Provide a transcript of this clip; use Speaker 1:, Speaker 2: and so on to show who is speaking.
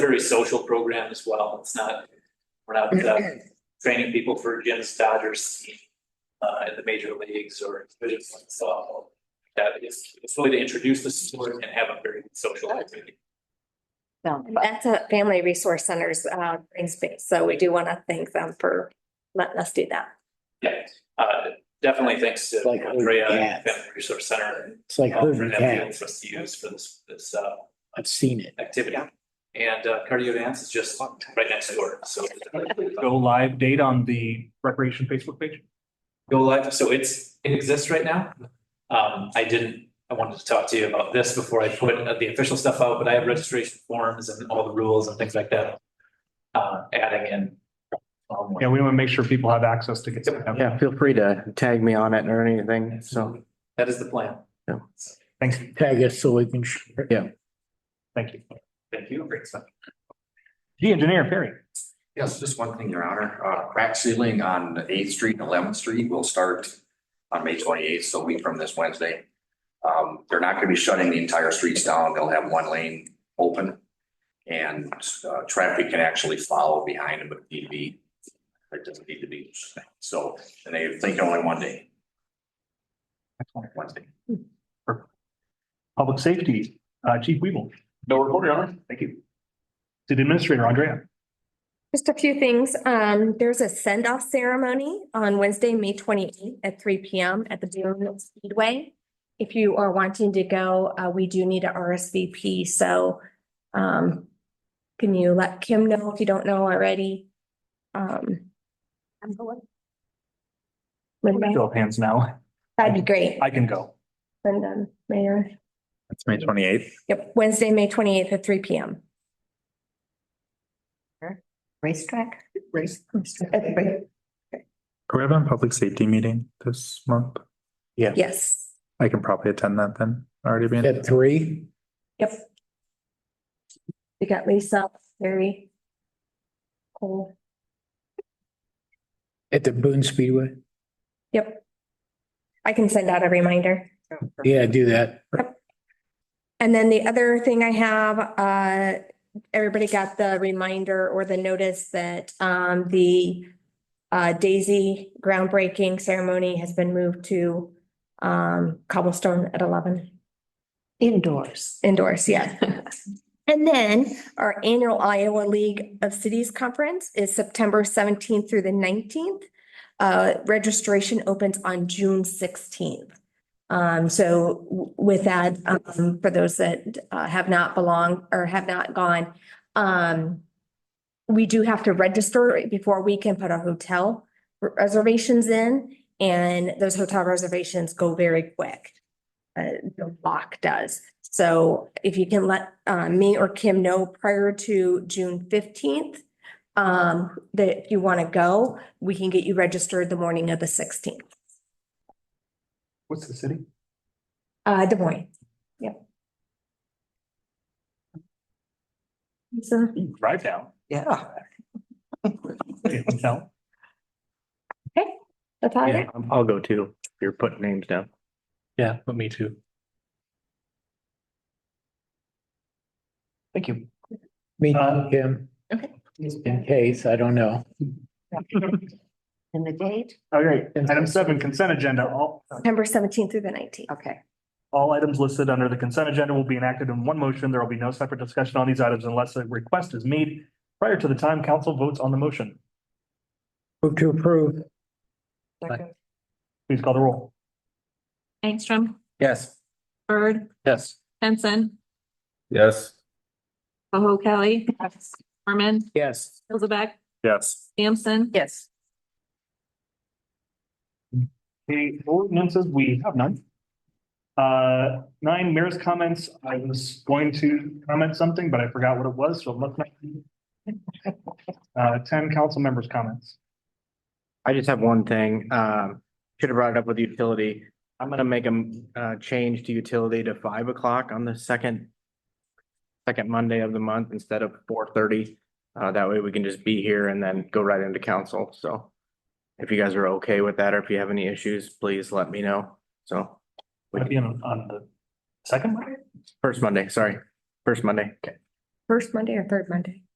Speaker 1: very social program as well. It's not, we're not uh, training people for Jim's Dodgers team uh, in the major leagues or division one softball. That is, it's really to introduce the sport and have a very social activity.
Speaker 2: No,
Speaker 3: And
Speaker 2: but
Speaker 3: That's a Family Resource Center's uh, green space, so we do want to thank them for letting us do that.
Speaker 1: Yeah, uh, definitely thanks to
Speaker 4: Like, oh,
Speaker 1: Andrea
Speaker 4: yeah.
Speaker 1: and Family Resource Center
Speaker 4: It's like
Speaker 1: uh, for
Speaker 4: herding
Speaker 1: that field
Speaker 4: cats.
Speaker 1: for us to use for this, this uh,
Speaker 4: I've seen it.
Speaker 1: activity. And uh, cardio dance is just right next door, so.
Speaker 5: go live date on the recreation Facebook page.
Speaker 1: go live, so it's, it exists right now. Um, I didn't, I wanted to talk to you about this before I put uh, the official stuff out, but I have registration forms and all the rules and things like that. Uh, adding in. um,
Speaker 5: Yeah, we want to make sure people have access to get. to that.
Speaker 6: Yeah, feel free to tag me on it or anything, so.
Speaker 1: That is the plan.
Speaker 6: Yeah.
Speaker 5: Thank you,
Speaker 4: Tag us so we can. share it.
Speaker 6: Yeah.
Speaker 5: thank you.
Speaker 1: Thank you, great stuff.
Speaker 5: The engineer, Perry.
Speaker 7: Yes, just one thing, Your Honor. Uh, crack sealing on Eighth Street and Eleventh Street will start on May twenty-eighth, so a week from this Wednesday. Um, they're not gonna be shutting the entire streets down. They'll have one lane open. And, uh, traffic can actually follow behind them if need be. It doesn't need to be, so, and they think only one day, Wednesday.
Speaker 5: Public Safety, uh, Chief Weevil. No report, Your Honor. Thank you. City Administrator Andrea.
Speaker 3: Just a few things. Um, there's a send-off ceremony on Wednesday, May twenty-eighth at three P M at the Boone Speedway. If you are wanting to go, uh, we do need a R S V P, so, um, can you let Kim know if you don't know already? Um. I'm going. Linda,
Speaker 5: Show of hands now.
Speaker 3: that'd be great.
Speaker 5: I can go.
Speaker 3: Linda, Mayor.
Speaker 6: That's May twenty eighth.
Speaker 3: Yep, Wednesday, May twenty-eighth at three P M.
Speaker 2: racetrack,
Speaker 3: Race.
Speaker 8: Are we having a public safety meeting this month?
Speaker 3: Yes,
Speaker 8: I can probably attend that then, already being.
Speaker 4: At three,
Speaker 3: yep. We got Lisa, Larry. Cole,
Speaker 4: at the Boone Speedway.
Speaker 3: yep. I can send out a reminder.
Speaker 4: Yeah, do that.
Speaker 3: And then the other thing I have, uh, everybody got the reminder or the notice that, um, the uh, Daisy groundbreaking ceremony has been moved to, um, cobblestone at eleven.
Speaker 2: indoors.
Speaker 3: Indoors, yeah. And then our annual Iowa League of Cities Conference is September seventeenth through the nineteenth. Uh, registration opens on June sixteenth. Um, so w- with that, um, for those that uh, have not belonged or have not gone, um, we do have to register before we can put our hotel reservations in. And those hotel reservations go very quick. Uh, the lock does. So if you can let uh, me or Kim know prior to June fifteenth, um, that if you want to go, we can get you registered the morning of the sixteenth,
Speaker 5: What's the city?
Speaker 3: uh, Des Moines. Yep. So,
Speaker 5: You Drive down.
Speaker 2: Yeah.
Speaker 5: City Hotel.
Speaker 3: that's all I got.
Speaker 6: Yeah, um, I'll go too. if You're putting names down.
Speaker 4: Yeah, but me too.
Speaker 5: Thank you.
Speaker 4: Me,
Speaker 5: Uh,
Speaker 4: Kim.
Speaker 3: Okay.
Speaker 4: In case, I don't know.
Speaker 2: And the date,
Speaker 5: All right, item seven, consent agenda. All,
Speaker 3: September seventeenth through the nineteenth.
Speaker 2: okay.
Speaker 5: all items listed under the consent agenda will be enacted in one motion. There will be no separate discussion on these items unless a request is made prior to the time council votes on the motion.
Speaker 4: Move to approve.
Speaker 5: Please call the roll.
Speaker 9: Angstrom,
Speaker 6: Yes.
Speaker 9: Bird,
Speaker 6: Yes.
Speaker 9: Henson,
Speaker 8: Yes.
Speaker 9: Koho Kelly, Mormon,
Speaker 4: Yes.
Speaker 9: Hillsaback,
Speaker 8: Yes.
Speaker 9: Sampson.
Speaker 2: Yes.
Speaker 5: Okay, ordinances, we have none. Uh, nine, mayor's comments. I was going to comment something, but I forgot what it was, so let's not. Uh, ten, council members' comments.
Speaker 6: I just have one thing, um, should have brought it up with utility. I'm gonna make a, uh, change to utility to five o'clock on the second. Second Monday of the month instead of four thirty. Uh, that way we can just be here and then go right into council, so. If you guys are okay with that, or if you have any issues, please let me know, so.
Speaker 5: Would it be on, on the second one?
Speaker 6: First Monday, sorry, first Monday.
Speaker 3: first Monday or third Monday?